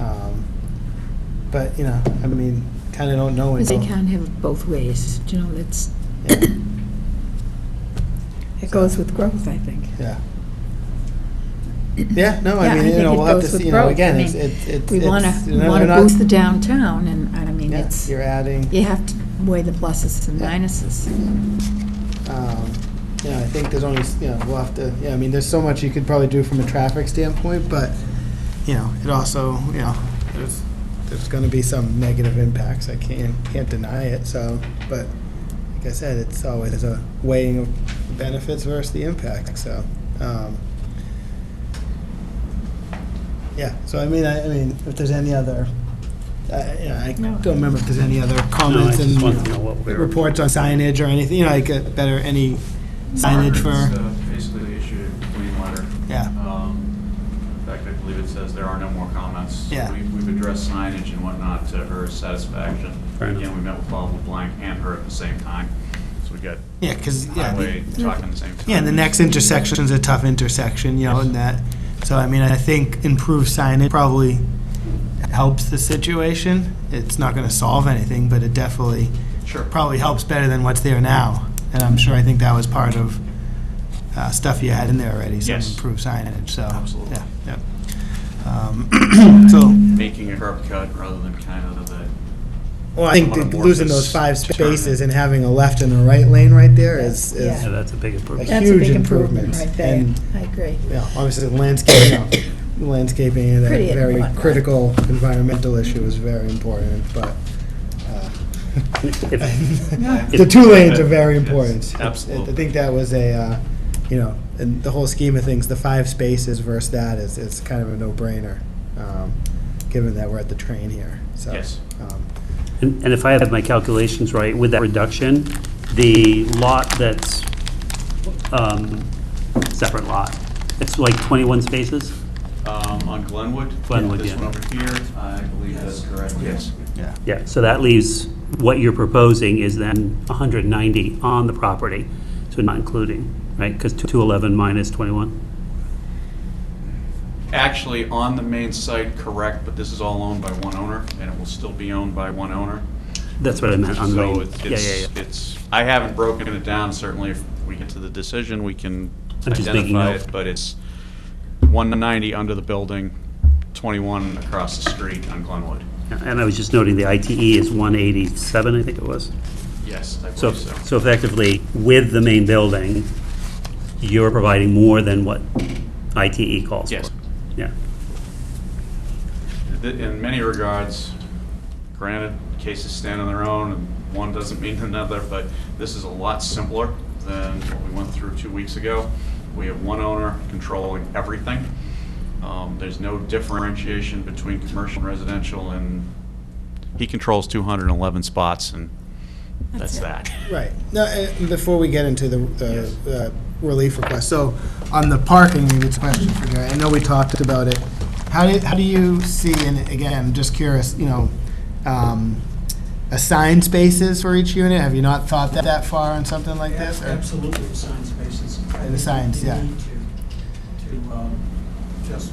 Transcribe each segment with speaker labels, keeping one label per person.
Speaker 1: Um, But, you know, I mean, kind of don't know
Speaker 2: Because
Speaker 1: until.
Speaker 2: they can't have it both ways, you know, that's,
Speaker 1: Yeah,
Speaker 2: it goes with growth, I think.
Speaker 1: Yeah. Yeah, no,
Speaker 2: Yeah,
Speaker 1: I
Speaker 2: I
Speaker 1: mean, you
Speaker 2: think
Speaker 1: know,
Speaker 2: it
Speaker 1: we'll have to
Speaker 2: goes with
Speaker 1: see, you know,
Speaker 2: growth.
Speaker 1: again,
Speaker 2: I
Speaker 1: it's,
Speaker 2: mean,
Speaker 1: it's. it's-
Speaker 2: We want
Speaker 1: it's-
Speaker 2: to,
Speaker 1: you know,
Speaker 2: want
Speaker 1: we're
Speaker 2: to
Speaker 1: not-
Speaker 2: boost the downtown, and, and I mean,
Speaker 1: Yeah,
Speaker 2: it's,
Speaker 1: you're adding.
Speaker 2: you have to weigh the pluses and
Speaker 1: Yeah.
Speaker 2: minuses.
Speaker 1: Um, You know, I think there's only, you know, we'll have to, yeah, I mean, there's so much you could probably do from a traffic standpoint, but, you know, it also, you know, there's, there's gonna be some negative impacts, I can't, can't deny it, so, but, like I said, it's always a weighing of benefits versus the impact, so, um, yeah, so I mean, I, I mean, if there's any other, I, you know, I
Speaker 2: No.
Speaker 1: don't remember if there's any other
Speaker 3: No, I
Speaker 1: comments and
Speaker 3: just wanted to know what we were,
Speaker 1: reports on signage or anything, you know, like uh, better, any signage
Speaker 4: It's,
Speaker 1: for,
Speaker 4: uh, Basically, issued a complaint letter.
Speaker 1: yeah,
Speaker 4: Um, In fact, I believe it says there are no more comments. So
Speaker 1: Yeah.
Speaker 4: we- We've addressed signage and whatnot to her satisfaction.
Speaker 3: Fair enough.
Speaker 4: Again, we met with Bob LeBlanc and her at the same time, so we got
Speaker 1: yeah, because, yeah. the-
Speaker 4: highway talking at the same time.
Speaker 1: Yeah, and the next intersection's a tough intersection, you know, and that, so I mean, I think improved signage probably helps the situation. It's not gonna solve anything, but it definitely,
Speaker 4: Sure.
Speaker 1: probably helps better than what's there now. And I'm sure, I think that was part of uh, stuff you had in there already, some
Speaker 4: Yes.
Speaker 1: improved signage, so.
Speaker 4: Absolutely.
Speaker 1: Yeah, yeah. Um, So,
Speaker 4: Making a curb cut rather than kind of the,
Speaker 1: Well, I think that
Speaker 4: Somewhat
Speaker 1: losing those
Speaker 4: amorphous
Speaker 1: five
Speaker 4: turn.
Speaker 1: spaces and having a left and a right lane right there is, is,
Speaker 3: yeah,
Speaker 1: you
Speaker 2: Yeah.
Speaker 3: that's a big improvement.
Speaker 2: That's a
Speaker 1: Huge
Speaker 2: big improvement
Speaker 1: improvements,
Speaker 2: right there,
Speaker 1: and-
Speaker 2: I agree.
Speaker 1: know, obviously landscaping, you know, landscaping and
Speaker 2: Pretty
Speaker 1: a very
Speaker 2: important.
Speaker 1: critical environmental issue is very important, but, uh,
Speaker 3: If-
Speaker 1: the two lanes are very
Speaker 4: uh, Yes,
Speaker 1: important.
Speaker 4: absolutely.
Speaker 1: I think that was a, uh, you know, in the whole scheme of things, the five spaces versus that is, is kind of a no-brainer, um, given that we're at the train here, so.
Speaker 4: Yes.
Speaker 1: um,
Speaker 3: And and if I have my calculations right, with that reduction, the lot that's, um, separate lot, it's like 21 spaces?
Speaker 4: um, on Glenwood.
Speaker 3: Glenwood,
Speaker 4: This
Speaker 3: yeah.
Speaker 4: one over here, I believe that's correct, yes.
Speaker 1: Yeah.
Speaker 3: Yeah, so that leaves, what you're proposing is then 190 on the property, so not including, right? Because 211 minus 21?
Speaker 4: Actually, on the main site, correct, but this is all owned by one owner, and it will still be owned by one owner.
Speaker 3: That's what I meant, on the,
Speaker 4: So
Speaker 3: main-
Speaker 4: it's,
Speaker 3: yeah, yeah, yeah.
Speaker 4: it's- it's, I haven't broken it down, certainly if we get to the decision, we can
Speaker 3: I'm just making
Speaker 4: identify
Speaker 3: note.
Speaker 4: it, but it's 190 under the building, 21 across the street on Glenwood.
Speaker 3: And I was just noting the ITE is 187, I think it was.
Speaker 4: Yes, I
Speaker 3: So,
Speaker 4: believe so.
Speaker 3: so effectively, with the main building, you're providing more than what ITE calls for?
Speaker 4: Yes.
Speaker 3: Yeah,
Speaker 4: Th- In many regards, granted, cases stand on their own, and one doesn't mean another, but this is a lot simpler than what we went through two weeks ago. We have one owner controlling everything. Um, There's no differentiation between commercial and residential, and he controls 211 spots, and that's that.
Speaker 1: Right. Now, uh, before we get into the, the uh, relief request, so on the parking, it's a question for Gary. I know we talked about it. How do, how do you see, and again, I'm just curious, you know, um, assigned spaces for each unit? Have you not thought that, that far on something like this? or-
Speaker 5: Absolutely, the sign spaces. I
Speaker 1: And the
Speaker 5: think
Speaker 1: signs,
Speaker 5: we
Speaker 1: yeah.
Speaker 5: need To, to um, just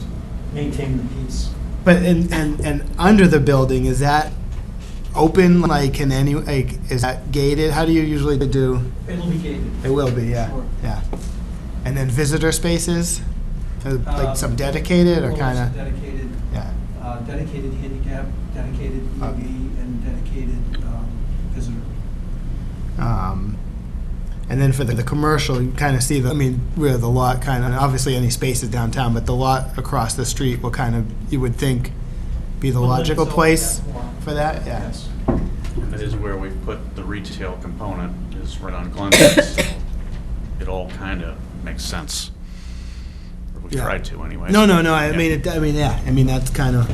Speaker 5: maintain the peace.
Speaker 1: But, and, and, and under the building, is that open, like, can any, like, is that gated? How do you usually do?
Speaker 5: It'll be gated.
Speaker 1: It will be, yeah,
Speaker 5: Sure.
Speaker 1: yeah. And then visitor spaces, Uh,
Speaker 5: Uh,
Speaker 1: like some dedicated or
Speaker 5: Well,
Speaker 1: kind
Speaker 5: it's
Speaker 1: of,
Speaker 5: Dedicated,
Speaker 1: yeah,
Speaker 5: uh, dedicated handicap, dedicated
Speaker 1: Uh.
Speaker 5: EV, and dedicated um, visitor.
Speaker 1: um, and then for the, the commercial, you kind of see the, I mean, where the lot kind of, obviously any spaces downtown, but the lot across the street will kind of, you would think, be the
Speaker 5: Will lend
Speaker 1: logical
Speaker 5: itself to
Speaker 1: place
Speaker 5: that more.
Speaker 1: for that, yeah.
Speaker 5: Yes.
Speaker 4: That is where we put the retail component, is right on Glenwood, so it all kind of makes sense. Or we
Speaker 1: Yeah.
Speaker 4: tried to anyways.
Speaker 1: No, no, no, I
Speaker 4: Yeah.
Speaker 1: mean, it, I mean, yeah, I mean, that's kind of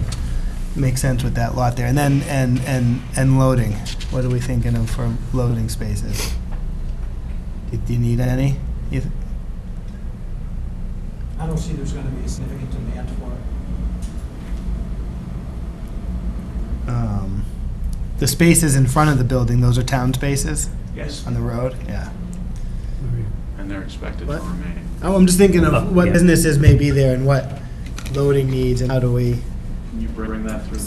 Speaker 1: makes sense with that lot there. And then, and, and, and loading, what are we thinking of for loading spaces? Do do you need any? You th-
Speaker 5: I don't see there's going to be a significant demand for it.
Speaker 1: um, The spaces in front of the building, those are town spaces
Speaker 4: Yes,
Speaker 1: on the road? Yeah.
Speaker 4: and they're expected to
Speaker 1: What?
Speaker 4: remain.
Speaker 1: Oh, I'm just thinking
Speaker 3: Oh,
Speaker 1: of what
Speaker 3: yeah.
Speaker 1: businesses may be there and what loading needs and how do we?
Speaker 4: Can you bring that through